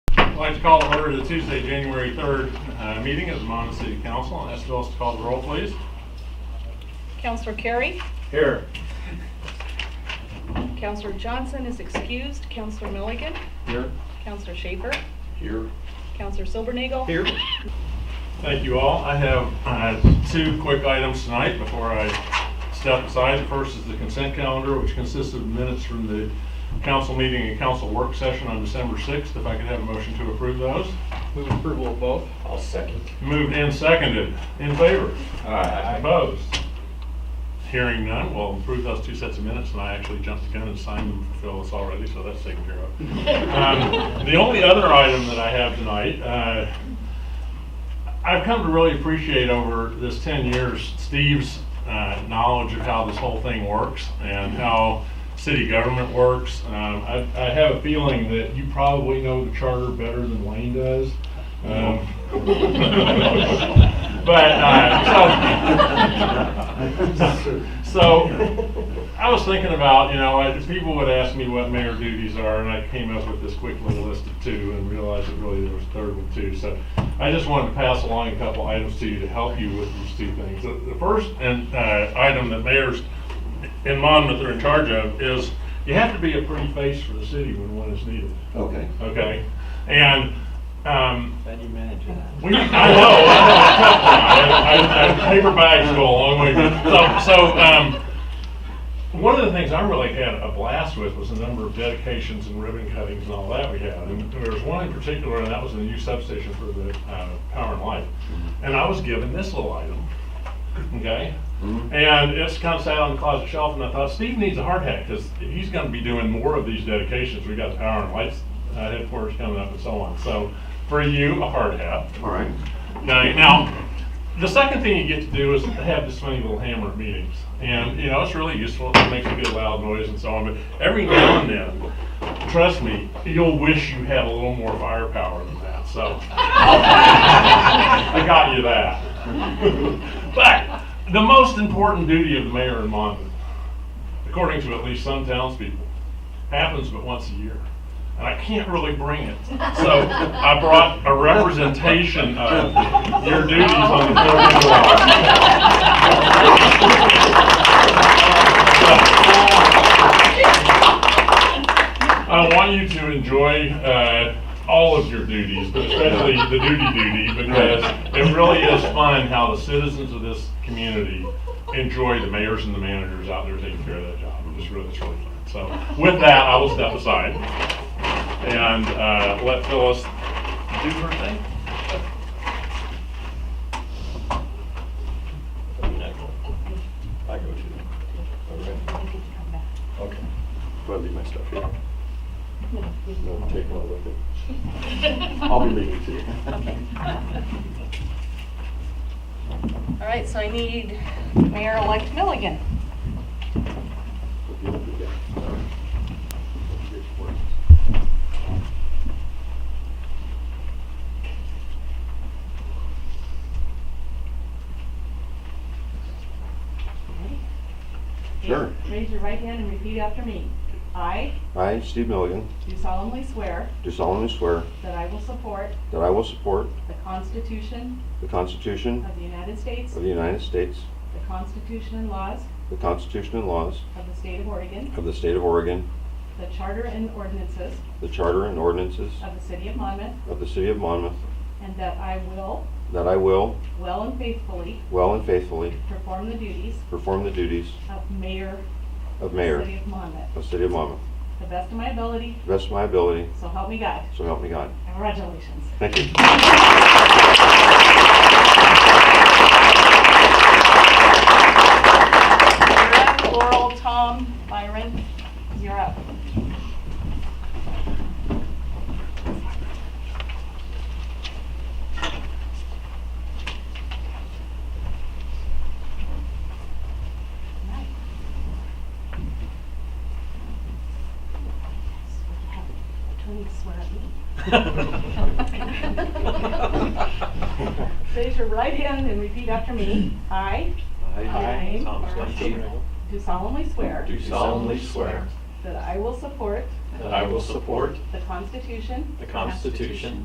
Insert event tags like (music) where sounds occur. I'd like to call to order the Tuesday, January 3rd uh, meeting of the Monmouth City Council. I'll ask Phyllis to call the roll, please. Counselor Carey? Here. Counselor Johnson is excused. Counselor Milligan? Here. Counselor Schaefer? Here. Counselor Silbernagel? Thank you all. I have uh, two quick items tonight before I step aside. The first is the consent calendar, which consists of minutes from the council meeting and council work session on December 6th. If I could have a motion to approve those. Move approval of both. I'll second. Moved and seconded. In favor? Aye. Opposed? Hearing none, we'll approve those two sets of minutes, and I actually jumped the gun and signed them for Phyllis already, so that's taken care of. Um, The only other item that I have tonight, uh, I've come to really appreciate over this 10 years Steve's uh, knowledge of how this whole thing works and how city government works. Um, I I have a feeling that you probably know the charter better than Wayne does. Um, (laughs) But, uh, so, so, I was thinking about, you know, I- people would ask me what mayor duties are, and I came up with this quick little list of two and realized that really there was a third one too. So I just wanted to pass along a couple items to you to help you with these two things. The the first and uh, item that mayors in Monmouth are in charge of is you have to be a pretty face for the city when one is needed, Okay. okay? And um, Then you manage that. we, I know, I know, it's tough. I, I, I paper bags go a long way. So, so, um, one of the things I really had a blast with was the number of dedications and ribbon cuttings and all that we had. And there was one in particular, and that was in the new substation for the, uh, Power and Light. And I was given this little item, okay? Mhm. And it's kind of sat on the closet shelf, and I thought, Steve needs a hard hat, because he's gonna be doing more of these dedications. We got the Power and Lights uh, headquarters coming up and so on. So, for you, a hard hat. All right. Now, now, the second thing you get to do is to have this funny little hammer at meetings. And, you know, it's really useful, it makes a good loud noise and so on, but every now and then, trust me, you'll wish you had a little more firepower than that, so. (laughs) I got you that. (laughs) But, the most important duty of the mayor in Monmouth, according to at least some townspeople, happens but once a year. And I can't really bring it. So I brought a representation of your duties on the 4th of July. I want you to enjoy uh, all of your duties, but especially the duty duty, because it really is fun how the citizens of this community enjoy the mayors and the managers out there taking care of that job. It's really, it's really fun. So with that, I will step aside and uh, let Phyllis do her thing. I mean, I go- I go to. Okay. Okay. Do I leave my stuff here? No, take one with me. I'll be leaving too. All right, so I need Mayor-elect Milligan. uh, Sure. Raise your right hand and repeat after me. I I, Steve Milligan, do solemnly swear do solemnly swear that I will support that I will support the Constitution the Constitution of the United States, of the United States, the Constitution and laws the Constitution and laws of the State of Oregon, of the State of Oregon, the Charter and ordinances the Charter and ordinances of the City of Monmouth, of the City of Monmouth, and that I will, that I will, well and faithfully, well and faithfully, perform the duties perform the duties of Mayor of of the City Mayor of Monmouth, of the City of Monmouth, to the best of my ability, to the best of my ability, so help me God. so help me God. Congratulations. Thank you. You're up. Laurel, Tom, Byron, you're up. Attorney swear at me. Raise your right hand and repeat after me. I I, Thomas Lindsay, do solemnly swear Do solemnly swear that I will support that I will support the Constitution the Constitution